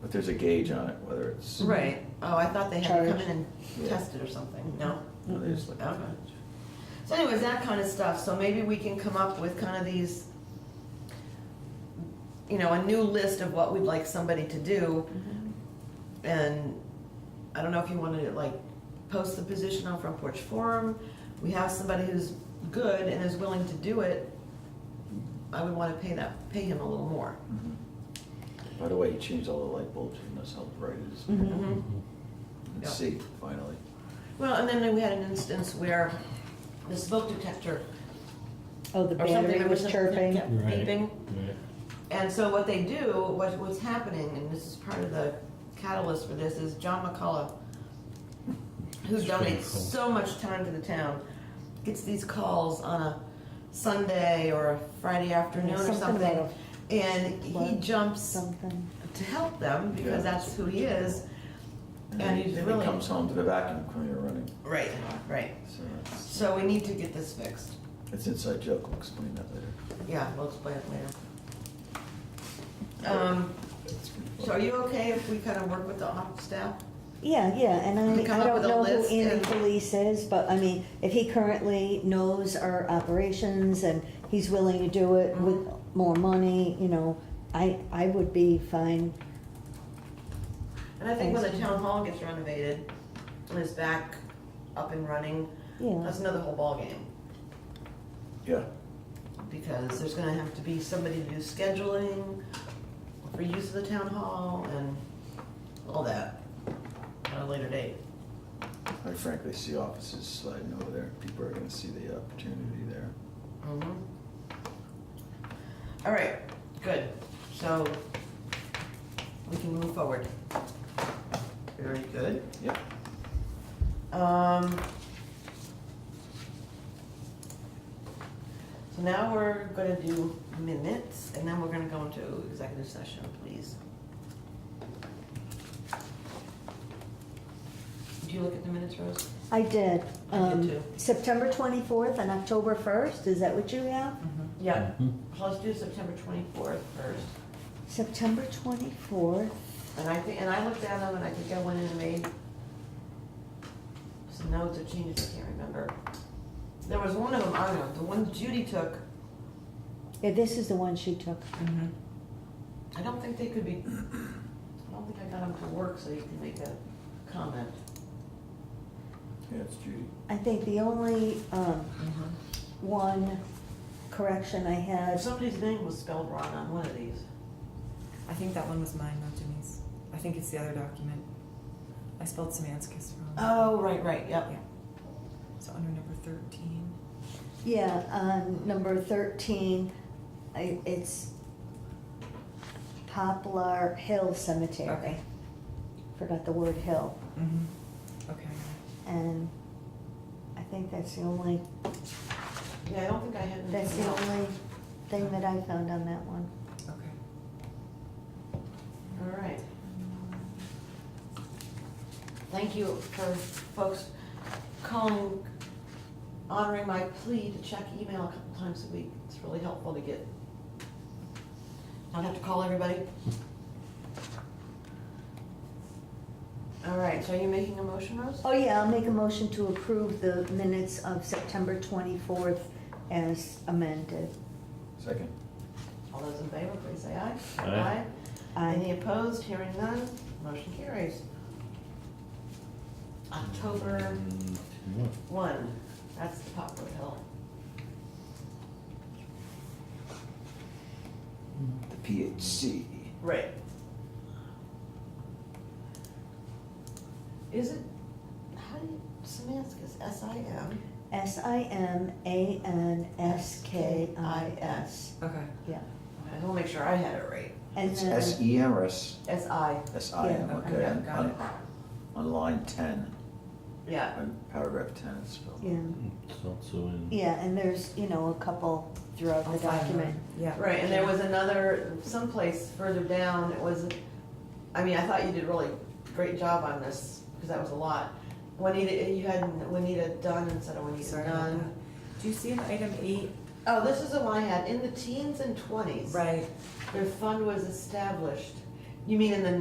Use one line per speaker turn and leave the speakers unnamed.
But there's a gauge on it, whether it's, you
Right, oh, I thought they had to come
Charge.
in and
Yeah.
test it or something, no?
know, they just look at
Okay.
the gauge.
So anyways, that kind of stuff, so maybe we can come up with kind of these, you know, a new list of what we'd like somebody to do. And I don't know if you want to like post the position on Front Porch Forum, we have somebody who's good and is willing to do it. I would want to pay that, pay him a little more.
Mhm. By the way, he changed all the light bulbs in this, how bright it is.
Mhm.
Mhm.
And
Yeah.
see, finally.
Well, and then we had an instance where the smoke detector
Oh, the
or something
battery
that was
was chirping.
kept
Right.
beeping.
Right.
And so what they do, what, what's happening, and this is part of the catalyst for this, is John McCullough, who
It's really
donates
cool.
so much time to the town, gets these calls on a Sunday or a Friday afternoon or
something
something,
about
and he
flood,
jumps
Something.
to help them because
Yeah.
that's who he is.
then
And
he-
he's
then
really-
He comes home to the vacuum cleaner running,
Right, right.
so it's,
So we need to get this fixed.
it's inside joke, I'll explain that later.
Yeah, we'll explain it later. Um,
It's pretty
so are
fun.
you okay if we kind of work with the op staff?
Yeah, yeah, and
We come
I, I
up
don't
with a
know
list
who Andy
and-
Police is, but I mean, if he currently knows our operations and he's willing to do
Mm-hmm.
it with more money, you know, I, I would be fine.
And I think when the
Thanks.
town hall gets renovated and is back up and running,
Yeah,
that's another whole ballgame.
Yeah,
Because there's gonna have to be somebody to do scheduling for use of the town hall and all that at a later date.
I frankly see offices sliding over there, people are gonna see the opportunity there.
Mhm. All right, good. So we can move forward. Very good.
Yep.
Um, so now we're gonna do minutes, and then we're gonna go into executive session, please. Do you look at the minutes, Rose?
I did.
I did
Um,
too.
September twenty-fourth and October first, is that what you have?
Mm-hmm. Yeah,
Mhm.
so let's do September twenty-fourth first,
September twenty-fourth,
and I think, and I looked at them, and I think I went in and made some notes or changes, I can't remember. There was one of them, I don't know, the one Judy took,
yeah, this is the one she took.
I don't think they could be, I don't think I got them to work so you can make a comment.
Yeah, it's Judy.
I think the only, um, one correction I had
Somebody's name was spelled wrong on one of these.
I think that one was mine, not Jimmy's. I think it's the other document. I spelled semanticus wrong.
Oh, right, right, yep.
Yeah. So under number thirteen.
Yeah, um, number thirteen, I, it's Poplar Hill Cemetery.
Okay.
Forgot the word hill,
Mm-hmm. Okay.
and I think that's the only,
Yeah, I don't think I had anything
that's the
else.
only thing that I found on that one.
Okay.
All right. Thank you for folks calling, honoring my plea to check email a couple times a week. It's really helpful to get, not have to call everybody. All right, so are you making a motion, Rose?
Oh, yeah, I'll make a motion to approve the minutes of September twenty-fourth as amended.
Second.
All those in favor, please say aye.
Aye.
Aye.
Any opposed? Hearing none, motion carries. October
Yeah.
one, that's the Poplar Hill.
The PHC.
Right. Is it, how do you, Samaskus, S I M?
S I M A N S K I S,
Okay.
yeah.
I will make sure I had it right.
And
It's
then-
S E M or S,
S I,
S I M,
Yeah,
okay,
okay,
yeah,
on,
got it.
on- on line ten,
yeah.
on paragraph ten it's spelled.
Yeah,
It's also in.
yeah, and there's, you know, a couple throughout
I'll
the
find
document.
mine. Yeah.
Right, and there was another, someplace further down, it was, I mean, I thought you did really great job on this, because that was a lot. Juanita, you had Juanita Dunn instead of Juanita
Sorry about
Dunn.
that. Do you see in item eight?
Oh, this is the one I had, in the teens and twenties.
Right.
Their fund was established. You mean in the